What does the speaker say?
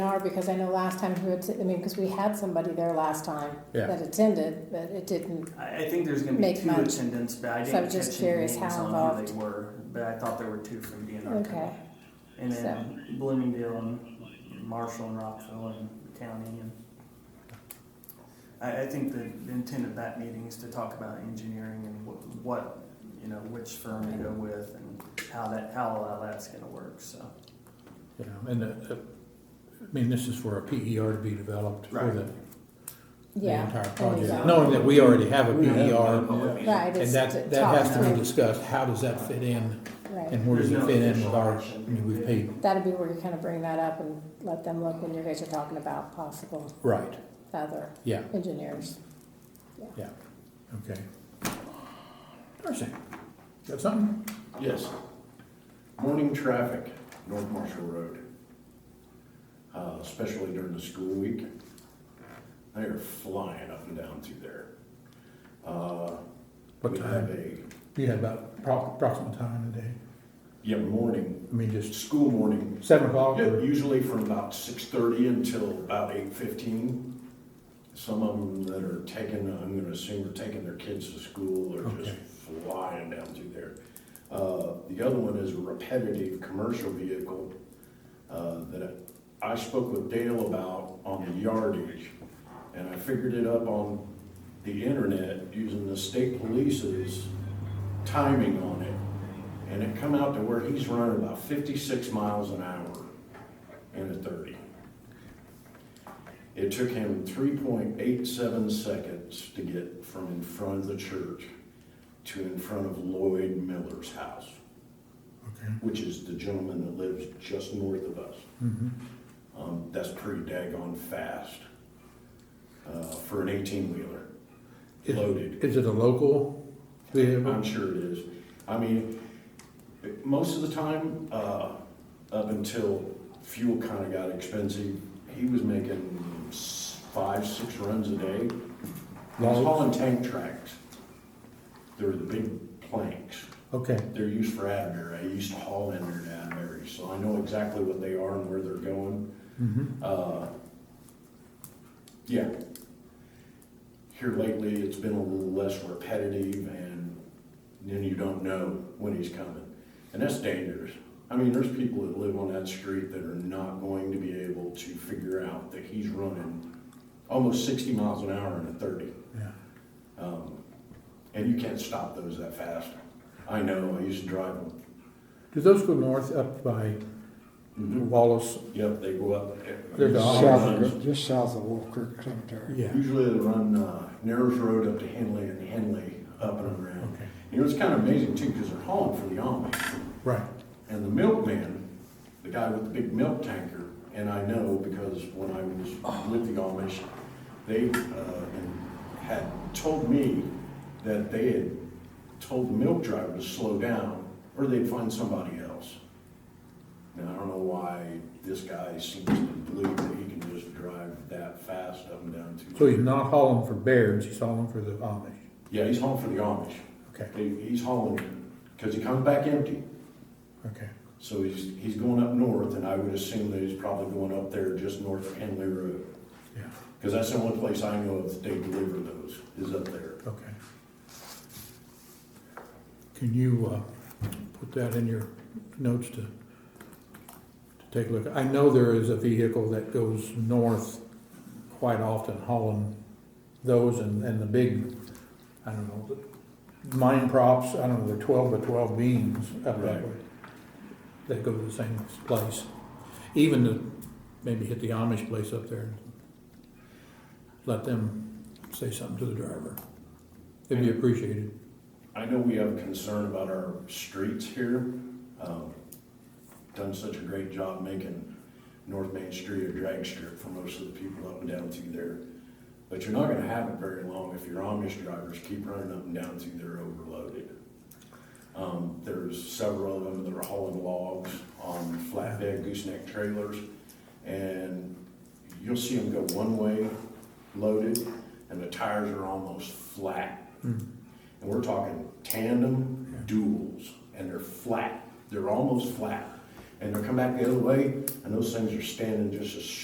hour, because I know last time who, att- I mean, because we had somebody there last time Yeah. that attended, but it didn't, I, I think there's gonna be Make two much. attendants, but I So didn't I'm just catch any curious names how on who they involved. were, but I thought there were two from DNR. okay. And then Bloomingdale and Marshall and Rockville and County and. I, I think the the intent of that meeting is to talk about engineering and what, what, you know, which firm to go with and how that, how all that's gonna work, so. Yeah, and, uh, uh, I mean, this is for a PER to be developed for Right. the, the Yeah. entire there you project. go. Knowing that we already have a We have PER, E one public meeting. Right, and it's to that, that talk has to be through, discussed, how does that fit in, right. and where does There's it no fit in with official our, I action. mean, we paid, That'd be where you kind of bring that up and let them look when you guys are talking about possible right, other yeah, engineers. yeah, okay. Darcy, got something? Yes. Morning traffic, North Marshall Road. Uh, especially during the school week. They are flying up and down through there. Uh, What we have time, a, do you have about pro- approximate time of the day? yeah, morning, I mean, just school morning. seven o'clock Yeah, or Usually from about six thirty until about eight fifteen. Some of them that are taking, I'm gonna assume are taking their kids to school or just Okay. flying down through there. Uh, the other one is a repetitive commercial vehicle, uh, that I spoke with Dale about on the yardage. And I figured it up on the internet using the state police's timing on it. And it come out to where he's running about fifty-six miles an hour in a thirty. It took him three point eight seven seconds to get from in front of the church to in front of Lloyd Miller's house, Okay. which is the gentleman that lives just north of us. Mhm. Um, that's pretty daggone fast, uh, for an eighteen-wheeler, Is- loaded. Is it a local vehicle? I'm sure it is. I mean, it- most of the time, uh, up until fuel kinda got expensive, he was making s- five, six runs a day. He was Logs? hauling tank tracks. They're the big planks. Okay, They're used for Adbury. I used to haul in there to Adbury, so I know exactly what they are and where they're going. mhm. Uh, Yeah. Here lately, it's been a little less repetitive and then you don't know when he's coming. And that's dangerous. I mean, there's people that live on that street that are not going to be able to figure out that he's running almost sixty miles an hour in a thirty. Yeah. Um, And you can't stop those that fast. I know, I used to drive them. Do those go north up by Wallace? Yep, they go up. Mm-hmm. They're the Just Dog south of, just south of Wolf Creek Cemetery. Yeah. Usually they run uh, Narrows Road up to Henley and Henley up and around. Okay, You know, it's kind of amazing too, because they're hauling for the Army. right. And the milkman, the guy with the big milk tanker, and I know because when I was with the Amish, they uh, had told me that they had told the milk driver to slow down, or they'd find somebody else. And I don't know why this guy seems to believe that he can just drive that fast up and down. to- So he's not hauling for Barron's, he's hauling for the Amish. Yeah, he's hauling for the Amish. Okay, He- He's hauling, because he comes back empty. okay. So he's, he's going up north, and I would assume that he's probably going up there just north of Henley Road. Yeah. Because that's the only place I know of that they deliver those, is up there. Okay. Can you, uh, put that in your notes to, to take a look? I know there is a vehicle that goes north quite often hauling those and, and the big, I don't know, the mine props, I don't know, they're twelve by twelve beams up that Right. way. That go to the same place. Even to maybe hit the Amish place up there and let them say something to the driver. It'd be appreciated. I know we have concern about our streets here. Um, Done such a great job making North Main Street a drag strip for most of the people up and down through there. But you're not gonna have it very long if your Amish drivers keep running up and down through there overloaded. Um, There's several of them that are hauling logs on flatbed gooseneck trailers. And you'll see them go one way loaded and the tires are almost flat and we're talking tandem duels, and they're flat, they're almost flat. And they'll come back the other way, and those things are standing just as